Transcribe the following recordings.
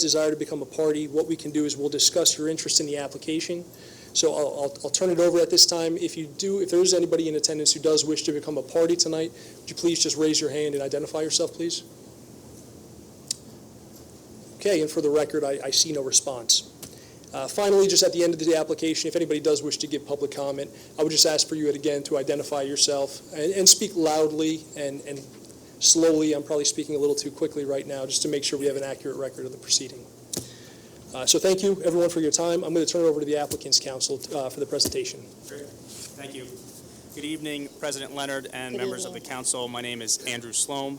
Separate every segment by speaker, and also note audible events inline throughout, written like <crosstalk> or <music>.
Speaker 1: desire to become a party, what we can do is we'll discuss your interest in the application. So I'll, I'll, I'll turn it over at this time. If you do, if there is anybody in attendance who does wish to become a party tonight, would you please just raise your hand and identify yourself, please? Okay, and for the record, I, I see no response. Uh, Finally, just at the end of the application, if anybody does wish to give public comment, I would just ask for you again to identify yourself and, and speak loudly and, and slowly, I'm probably speaking a little too quickly right now, just to make sure we have an accurate record of the proceeding. Uh, So thank you, everyone, for your time. I'm going to turn it over to the applicant's counsel uh, for the presentation.
Speaker 2: Great. Thank you. Good evening, President Leonard and
Speaker 3: Good
Speaker 2: members of the
Speaker 3: evening.
Speaker 2: council. My name is Andrew Sloan.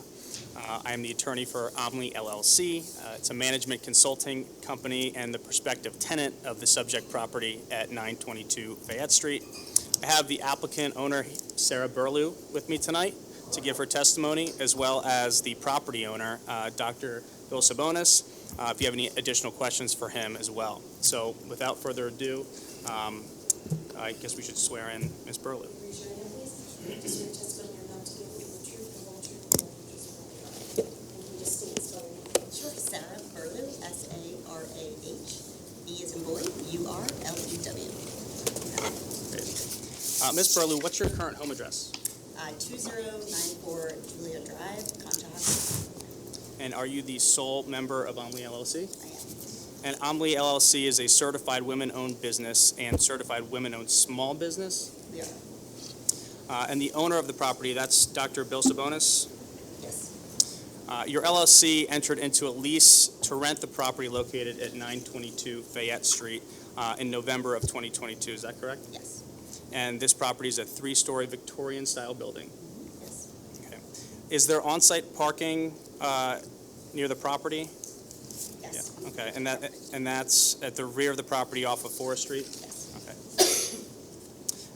Speaker 2: Uh, I am the attorney for Omni LLC. Uh, It's a management consulting company and the prospective tenant of the subject property at 922 Fayette Street. I have the applicant owner, Sarah Burlew, with me tonight to give her testimony, as well as the property owner, uh, Dr. Bill Sabonis, uh, if you have any additional questions for him as well. So without further ado, um, I guess we should swear in Ms. Burlew.
Speaker 4: Raise your hand, please. Do swear to testify you're about to give the truth, the whole truth, and nothing but the truth. And can you just state and spell your name?
Speaker 3: Sure, Sarah Berlew, S-A-R-A-H, E as in boy, U-R-L-E-W.
Speaker 2: Uh, Ms. Burlew, what's your current home address?
Speaker 3: Uh, 2094 Julia Drive, Conchahawken.
Speaker 2: And are you the sole member of Omni LLC?
Speaker 3: I am.
Speaker 2: And Omni LLC is a certified women-owned business and certified women-owned small business.
Speaker 3: We are,
Speaker 2: Uh, and the owner of the property, that's Dr. Bill Sabonis.
Speaker 3: yes,
Speaker 2: Uh, your LLC entered into a lease to rent the property located at 922 Fayette Street uh, in November of 2022. Is that correct?
Speaker 3: yes,
Speaker 2: And this property is a three-story Victorian-style building.
Speaker 3: yes.
Speaker 2: Okay. Is there on-site parking uh, near the property?
Speaker 3: Yes,
Speaker 2: Yeah, Okay, and that, and that's at the rear of the property off of Forest Street?
Speaker 3: yes,
Speaker 2: Okay.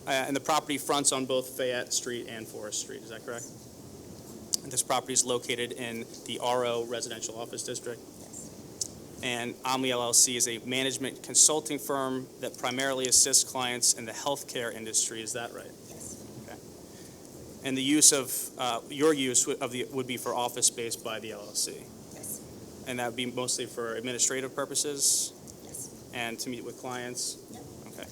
Speaker 2: Uh, And the property fronts on both Fayette Street and Forest Street, is that correct? And this property is located in the RO Residential Office District?
Speaker 3: yes,
Speaker 2: And Omni LLC is a management consulting firm that primarily assists clients in the healthcare industry, is that right?
Speaker 3: yes,
Speaker 2: And the use of, uh, your use would- of the, would be for office space by the LLC?
Speaker 3: yes,
Speaker 2: And that would be mostly for administrative purposes
Speaker 3: yes.
Speaker 2: and to meet with clients?
Speaker 3: Yep.
Speaker 2: Okay.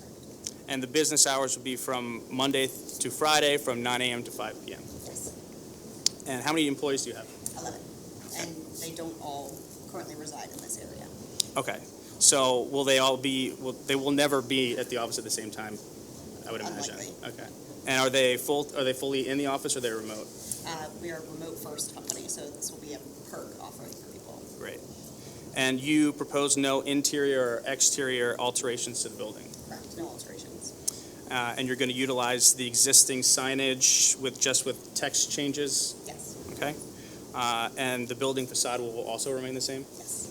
Speaker 2: And the business hours would be from Monday th- to Friday, from 9 AM to 5 PM?
Speaker 3: Yes,
Speaker 2: And how many employees do you have?
Speaker 3: I love it. And they don't all currently reside in this area.
Speaker 2: Okay. So will they all be, will- they will never be at the office at the same time, I would imagine?
Speaker 3: Unlikely.
Speaker 2: Okay. And are they full, are they fully in the office or they're remote?
Speaker 3: Uh, We are a remote-first company, so this will be a perk offering for people.
Speaker 2: Great. And you propose no interior or exterior alterations to the building?
Speaker 3: Correct, no alterations.
Speaker 2: Uh, And you're going to utilize the existing signage with, just with text changes?
Speaker 3: Yes,
Speaker 2: Okay. Uh, And the building facade will also remain the same?
Speaker 3: yes.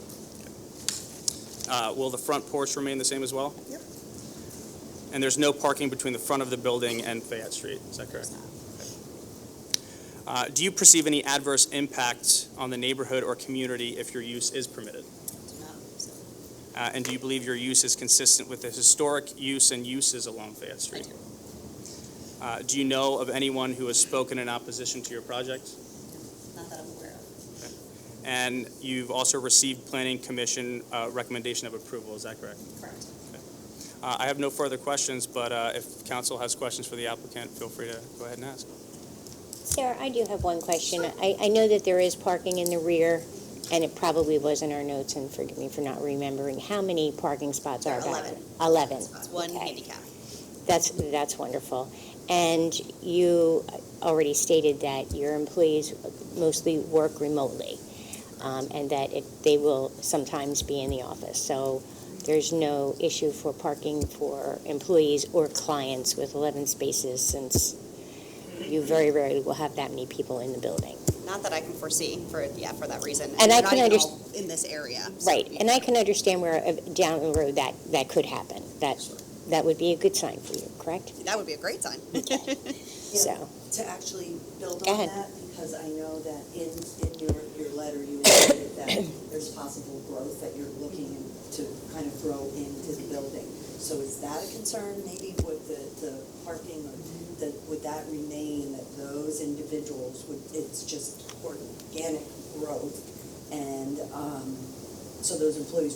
Speaker 2: Uh, Will the front porch remain the same as well?
Speaker 3: Yep.
Speaker 2: And there's no parking between the front of the building and Fayette Street, is that
Speaker 3: There's
Speaker 2: correct? Uh,
Speaker 3: not.
Speaker 2: Do you perceive any adverse impact on the neighborhood or community if your use is permitted?
Speaker 3: Do not believe so.
Speaker 2: Uh, And do you believe your use is consistent with the historic use and uses along Fayette
Speaker 3: I
Speaker 2: Street?
Speaker 3: do.
Speaker 2: Uh, Do you know of anyone who has spoken in opposition to your project?
Speaker 3: Not that I'm aware of.
Speaker 2: And you've also received Planning Commission uh, recommendation of approval, is that correct?
Speaker 3: Correct.
Speaker 2: Uh, I have no further questions, but uh, if council has questions for the applicant, feel free to go ahead and ask.
Speaker 5: Sarah, I do have one question. I, I know that there is parking in the rear, and it probably was in our notes, and forgive me for not remembering. How many parking spots are
Speaker 3: There are
Speaker 5: there?
Speaker 3: 11.
Speaker 5: Eleven.
Speaker 3: It's one
Speaker 5: Okay.
Speaker 3: handicap.
Speaker 5: That's, that's wonderful. And you already stated that your employees mostly work remotely, um, and that it, they will sometimes be in the office. So there's no issue for parking for employees or clients with 11 spaces, since you very rarely will have that many people in the building.
Speaker 3: Not that I can foresee for, yeah, for that reason.
Speaker 5: And I
Speaker 3: they're
Speaker 5: can
Speaker 3: not even
Speaker 5: underst-
Speaker 3: all In this area. so-
Speaker 5: Right, and I can understand where, uh, down the road, that, that could happen. That, that would be a good sign for you, correct?
Speaker 3: That would be a
Speaker 5: <laughs>
Speaker 3: great sign.
Speaker 5: So.
Speaker 6: to actually build
Speaker 5: Go
Speaker 6: on
Speaker 5: ahead.
Speaker 6: that, because I know that in, in your, your letter, you
Speaker 5: <clears throat>
Speaker 6: indicated that there's possible growth that you're looking to kind of grow into the building. So is that a concern, maybe with the, the parking, or the, would that remain, that those individuals would, it's just organic growth? And, um, so those employees